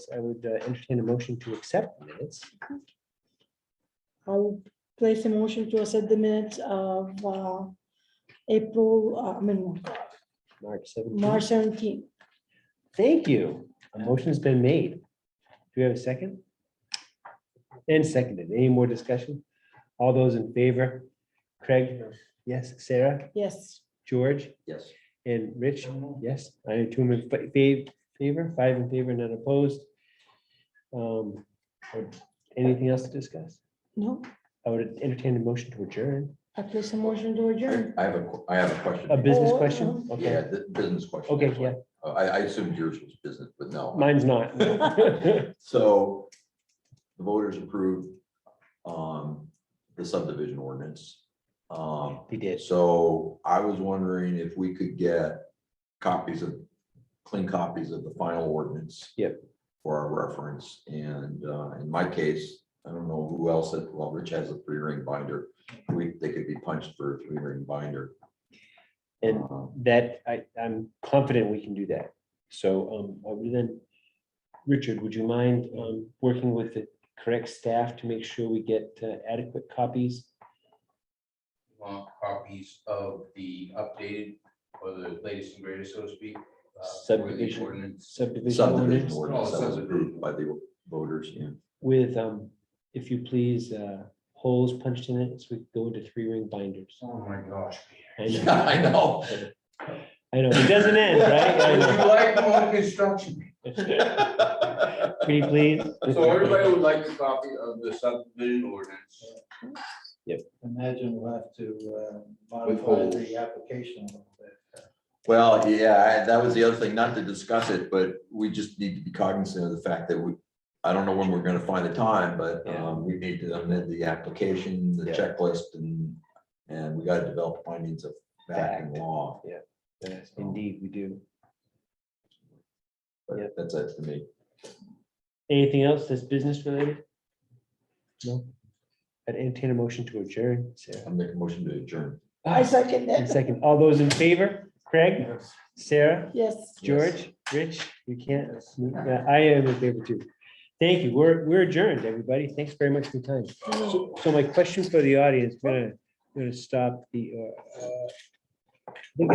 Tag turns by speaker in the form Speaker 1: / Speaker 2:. Speaker 1: I would uh, entertain a motion to accept the minutes.
Speaker 2: I would place a motion to accept the minutes of uh, April, uh, I mean,
Speaker 1: March seventeenth.
Speaker 2: March 17.
Speaker 1: Thank you. A motion's been made. Do you have a second? And seconded. Any more discussion? All those in favor? Craig? Yes. Sarah?
Speaker 2: Yes,
Speaker 1: George?
Speaker 3: Yes.
Speaker 1: And Rich? Yes, I am two in fa- fa- favor, five in favor, none opposed. Um, Anything else to discuss?
Speaker 2: no,
Speaker 1: I would entertain a motion to adjourn.
Speaker 2: I place a motion to
Speaker 3: I
Speaker 2: adjourn.
Speaker 3: I have a, qu- I have a question.
Speaker 1: A business
Speaker 2: Oh,
Speaker 1: question?
Speaker 3: Yeah,
Speaker 1: Okay,
Speaker 3: the business question.
Speaker 1: okay,
Speaker 3: that's
Speaker 1: yeah,
Speaker 3: what- Uh, I, I assumed yours was business, but no.
Speaker 1: mine's not.
Speaker 3: So the voters approved um, the subdivision ordinance. Um,
Speaker 1: He did.
Speaker 3: So I was wondering if we could get copies of, clean copies of the final ordinance.
Speaker 1: Yep.
Speaker 3: For our reference, and uh, in my case, I don't know who else, had- well, Rich has a three ring binder. We, they could be punched for a three ring binder.
Speaker 1: And
Speaker 3: Um,
Speaker 1: that, I, I'm confident we can do that. So, um, I would then, Richard, would you mind, um, working with the correct staff to make sure we get uh, adequate copies?
Speaker 4: want copies of the updated or the latest and greatest, so to speak. uh, for the
Speaker 1: Subdivision.
Speaker 4: ordinance.
Speaker 1: Subdivision
Speaker 3: Subdivision
Speaker 1: ordinance?
Speaker 3: ordinance
Speaker 4: Oh,
Speaker 3: that was
Speaker 4: subdivision.
Speaker 3: approved by the voters, yeah.
Speaker 1: with, um, if you please, uh, holes punched in it, so we go into three ring binders.
Speaker 4: Oh, my gosh.
Speaker 1: I know,
Speaker 3: Yeah, I know.
Speaker 1: I know, it doesn't end, right?
Speaker 4: You like the whole construction.
Speaker 1: I know. Can you please?
Speaker 4: So everybody would like a copy of the subdivision ordinance.
Speaker 5: Imagine we'll have to uh, modify
Speaker 4: Withhold.
Speaker 5: the application a little bit.
Speaker 3: Well, yeah, I- that was the other thing, not to discuss it, but we just need to be cognizant of the fact that we, I don't know when we're gonna find the time, but
Speaker 1: Yeah.
Speaker 3: um, we need to amend the application, the
Speaker 1: Yeah.
Speaker 3: checklist, and, and we gotta develop findings of fact and
Speaker 1: Fact.
Speaker 3: law.
Speaker 1: Yes, Indeed, we do. Yeah.
Speaker 3: But that's it to me.
Speaker 1: Anything else that's business related? No? I'd entertain a motion to adjourn, Sarah.
Speaker 3: I'm making a motion to adjourn.
Speaker 2: I second
Speaker 1: And
Speaker 2: that.
Speaker 1: second, all those in favor? Craig, Sarah,
Speaker 2: Yes.
Speaker 1: George, Rich, you can't, Yeah, I am in favor too. Thank you. We're, we're adjourned, everybody. Thanks very much for your time. So so my question for the audience, I'm gonna, I'm gonna stop the, uh,